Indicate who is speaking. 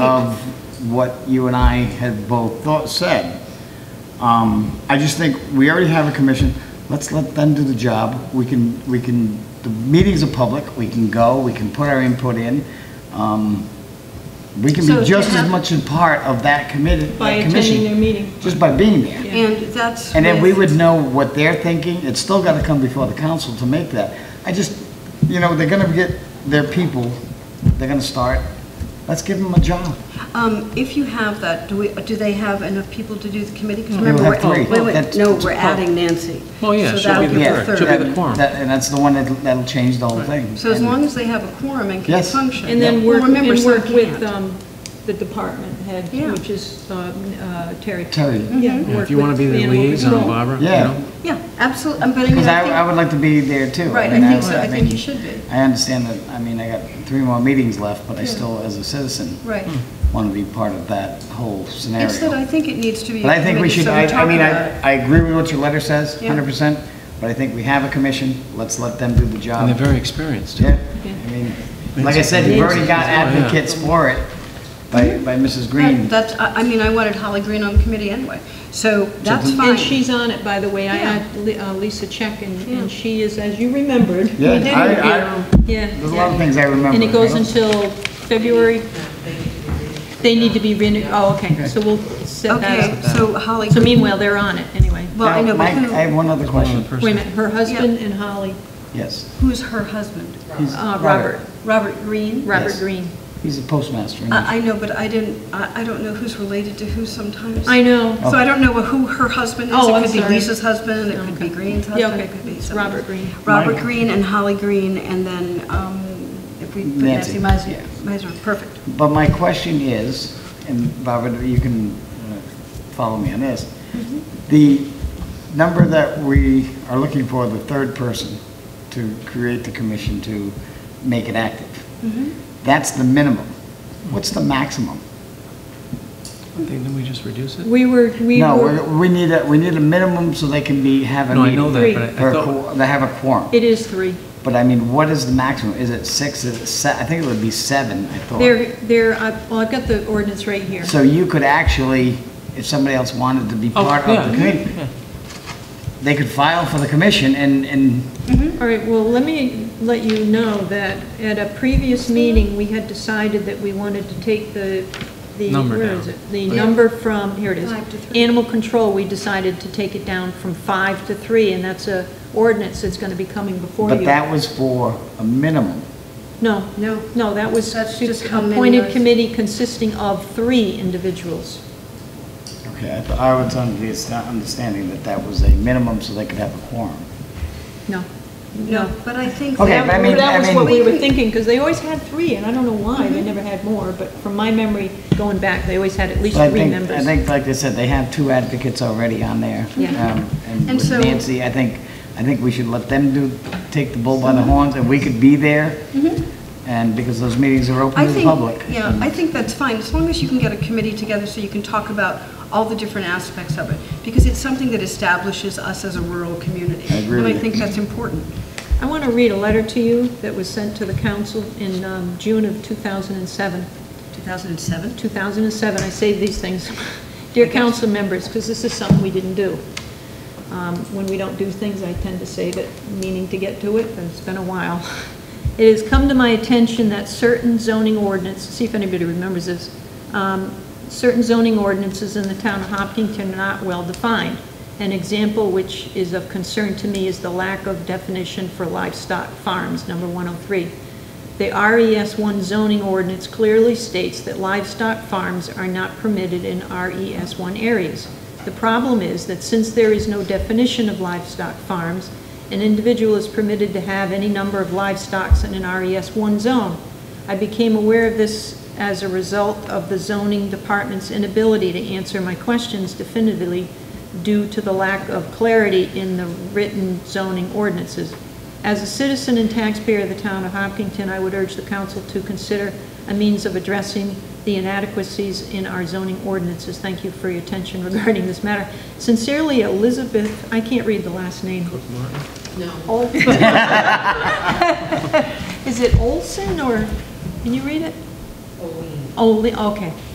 Speaker 1: of what you and I had both thought, said. Um, I just think we already have a commission, let's let them do the job. We can, we can, the meetings are public, we can go, we can put our input in. Um, We can
Speaker 2: So
Speaker 1: be
Speaker 2: to
Speaker 1: just as
Speaker 2: have-
Speaker 1: much a part of that committee,
Speaker 3: By
Speaker 1: that
Speaker 3: attending their
Speaker 1: commission,
Speaker 3: meeting.
Speaker 1: just by being there.
Speaker 2: And that's.
Speaker 1: And then we
Speaker 2: with-
Speaker 1: would know what they're thinking. It's still got to come before the council to make that. I just, you know, they're going to get their people, they're going to start, let's give them a job.
Speaker 2: Um, if you have that, do we, do they have enough people to do the committee? Because
Speaker 1: We
Speaker 2: remember,
Speaker 1: Mm-hmm. have
Speaker 2: we're-
Speaker 1: three.
Speaker 2: wait, wait,
Speaker 1: That's-
Speaker 2: no,
Speaker 1: that's
Speaker 2: we're adding Nancy.
Speaker 4: Oh, yeah,
Speaker 2: So
Speaker 4: she'll
Speaker 2: that'll
Speaker 4: be the
Speaker 2: be
Speaker 4: third. She'll be the quorum.
Speaker 1: That- And that's the one that'll that'll change the whole thing.
Speaker 2: So as
Speaker 1: And-
Speaker 2: long as they have a quorum and can
Speaker 1: Yes.
Speaker 2: function.
Speaker 3: And then
Speaker 2: Well,
Speaker 3: work,
Speaker 2: remember,
Speaker 3: and
Speaker 2: some
Speaker 3: work with
Speaker 2: can't.
Speaker 3: um, the department head,
Speaker 2: Yeah. Mm-hmm.
Speaker 3: which is um, uh, Terry.
Speaker 1: Terry.
Speaker 3: Yeah.
Speaker 4: Yeah,
Speaker 3: work
Speaker 4: If you want to
Speaker 3: with
Speaker 4: be the
Speaker 3: animal
Speaker 4: liaison,
Speaker 3: control.
Speaker 4: Barbara, you
Speaker 1: Yeah.
Speaker 4: know?
Speaker 2: Yeah, absolutely, but I mean,
Speaker 1: Because I, I
Speaker 2: I
Speaker 1: would like to be there too.
Speaker 2: think, right, I
Speaker 1: mean,
Speaker 2: think so,
Speaker 1: would-
Speaker 2: I think
Speaker 1: mean,
Speaker 2: you should be,
Speaker 1: I understand that, I mean, I got three more meetings left, but I still, as a citizen,
Speaker 2: right.
Speaker 1: want to be part of that whole scenario.
Speaker 2: It's that I think it needs to be a
Speaker 1: But I think we should,
Speaker 2: committee, so
Speaker 1: I,
Speaker 2: we
Speaker 1: I
Speaker 2: talk
Speaker 1: mean,
Speaker 2: about it.
Speaker 1: I, I agree with what your letter says,
Speaker 2: Yeah.
Speaker 1: hundred percent, but I think we have a commission, let's let them do the job.
Speaker 4: And they're very experienced.
Speaker 1: Yeah, I mean, like I said, you've already got advocates for it by, by Mrs.
Speaker 2: That-
Speaker 1: Green.
Speaker 2: That's, I I mean, I wanted Holly Green on the committee anyway, so that's fine.
Speaker 3: And she's on it, by the way. I
Speaker 2: Yeah.
Speaker 3: had Li- uh, Lisa Check, and
Speaker 2: Yeah.
Speaker 3: and she is, as you remembered.
Speaker 1: Yeah, I, I,
Speaker 3: Yeah.
Speaker 1: there's a lot of
Speaker 3: yeah.
Speaker 1: things I remember.
Speaker 3: And it goes
Speaker 1: you know?
Speaker 3: until February? They need to be renewed, oh, okay, so we'll set
Speaker 2: Okay,
Speaker 3: that up.
Speaker 2: so Holly,
Speaker 3: So meanwhile, they're on it, anyway.
Speaker 2: well, I
Speaker 1: Now,
Speaker 2: know, but
Speaker 1: Mike, I have
Speaker 2: who,
Speaker 1: one other question,
Speaker 3: Wait a minute, her husband and Holly,
Speaker 1: yes.
Speaker 2: who's her husband?
Speaker 1: he's-
Speaker 3: uh, Robert,
Speaker 2: Robert Green?
Speaker 3: Robert
Speaker 1: Yes.
Speaker 3: Green.
Speaker 1: He's a postmaster. in-
Speaker 3: Uh,
Speaker 2: I, I know, but I didn't, I, I don't know who's related to who sometimes.
Speaker 3: I know.
Speaker 1: Oh.
Speaker 2: So I don't know who her husband is.
Speaker 3: Oh, I'm
Speaker 2: It could be
Speaker 3: sorry.
Speaker 2: Lisa's husband, it could be
Speaker 3: Okay.
Speaker 2: Green's
Speaker 3: Yeah,
Speaker 2: husband, it
Speaker 3: okay.
Speaker 2: could be
Speaker 3: It's
Speaker 2: somebody.
Speaker 3: Robert Green.
Speaker 2: Robert
Speaker 1: Mike.
Speaker 2: Green and Holly Green, and then, um, if we, put
Speaker 1: Nancy.
Speaker 2: Nancy Meiser,
Speaker 1: Yeah.
Speaker 2: Meiser, perfect.
Speaker 1: But my question is, and Barbara, you can uh, follow me on this.
Speaker 3: Mm-hmm.
Speaker 1: The number that we are looking for, the third person to create the commission to make it active,
Speaker 3: Mm-hmm.
Speaker 1: that's the minimum. What's the maximum?
Speaker 4: Didn't we just reduce it?
Speaker 3: We were, we
Speaker 1: No,
Speaker 3: were,
Speaker 1: we're- we need a, we need a minimum so they can be, have a
Speaker 4: No, I
Speaker 1: meeting.
Speaker 4: know
Speaker 3: Three.
Speaker 4: that, but I-
Speaker 1: Or
Speaker 4: I
Speaker 1: a
Speaker 4: thought,
Speaker 1: qu- they have a quorum.
Speaker 3: it is three.
Speaker 1: But I mean, what is the maximum? Is it six, is it se, I think it would be seven, I thought.
Speaker 3: They're, they're, I- well, I've got the ordinance right here.
Speaker 1: So you could actually, if somebody else wanted to be
Speaker 4: Oh,
Speaker 1: part
Speaker 4: yeah,
Speaker 1: of the committee, they could file for the commission and, and,
Speaker 3: All right, well, let me let you know that at a previous meeting, we had decided that we wanted to take the, the.
Speaker 4: Number
Speaker 3: where
Speaker 4: down.
Speaker 3: is it? The
Speaker 1: Oh,
Speaker 3: number from, here it is.
Speaker 2: Five to three.
Speaker 3: Animal control, we decided to take it down from five to three, and that's a ordinance that's gonna be coming before you.
Speaker 1: but that was for a minimum.
Speaker 3: No,
Speaker 2: No.
Speaker 3: no, that was
Speaker 2: That's just how many are-
Speaker 3: appointed committee consisting of three individuals.
Speaker 1: Okay, I thought, I was under the understanding that that was a minimum so they could have a quorum.
Speaker 3: No,
Speaker 2: No,
Speaker 3: no.
Speaker 2: but I think.
Speaker 1: Okay,
Speaker 2: that-
Speaker 1: but I mean-
Speaker 3: That was what
Speaker 1: mean- Mm-hmm.
Speaker 3: we were thinking, because they always had three, and I don't know why, they never had more, but from my memory going back, they always had at least
Speaker 1: But I
Speaker 3: three
Speaker 1: think,
Speaker 3: members.
Speaker 1: I think, like I said, they have two advocates already on there.
Speaker 3: Yeah.
Speaker 1: Um, And
Speaker 2: And
Speaker 1: with
Speaker 2: so-
Speaker 1: Nancy, I think, I think we should let them do, take the bull by the horns and we could be there.
Speaker 3: Mm-hmm.
Speaker 1: And because those meetings are open
Speaker 2: I
Speaker 1: to the
Speaker 2: think,
Speaker 1: public.
Speaker 2: yeah, I think that's fine, as long as you can get a committee together so you can talk about all the different aspects of it, because it's something that establishes us as a rural community.
Speaker 1: I agree with
Speaker 2: And I
Speaker 1: you.
Speaker 2: think that's important.
Speaker 3: I want to read a letter to you that was sent to the council in um, June of 2007.
Speaker 2: 2007?
Speaker 3: 2007, I say these things, dear council members, because this is something we didn't do. Um, When we don't do things, I tend to save it, meaning to get to it, but it's been a while. It has come to my attention that certain zoning ordinance, see if anybody remembers this, um, certain zoning ordinances in the town of Hopkinton are not well-defined. An example which is of concern to me is the lack of definition for livestock farms, number 103. The RES 1 zoning ordinance clearly states that livestock farms are not permitted in RES 1 areas. The problem is that since there is no definition of livestock farms, an individual is permitted to have any number of livestocks in an RES 1 zone. I became aware of this as a result of the zoning department's inability to answer my questions definitively due to the lack of clarity in the written zoning ordinances. As a citizen and taxpayer of the town of Hopkinton, I would urge the council to consider a means of addressing the inadequacies in our zoning ordinances. Thank you for your attention regarding this matter. Sincerely, Elizabeth, I can't read the last name. No. Is it Olson or, can you read it?
Speaker 5: Olin.
Speaker 3: Only, okay,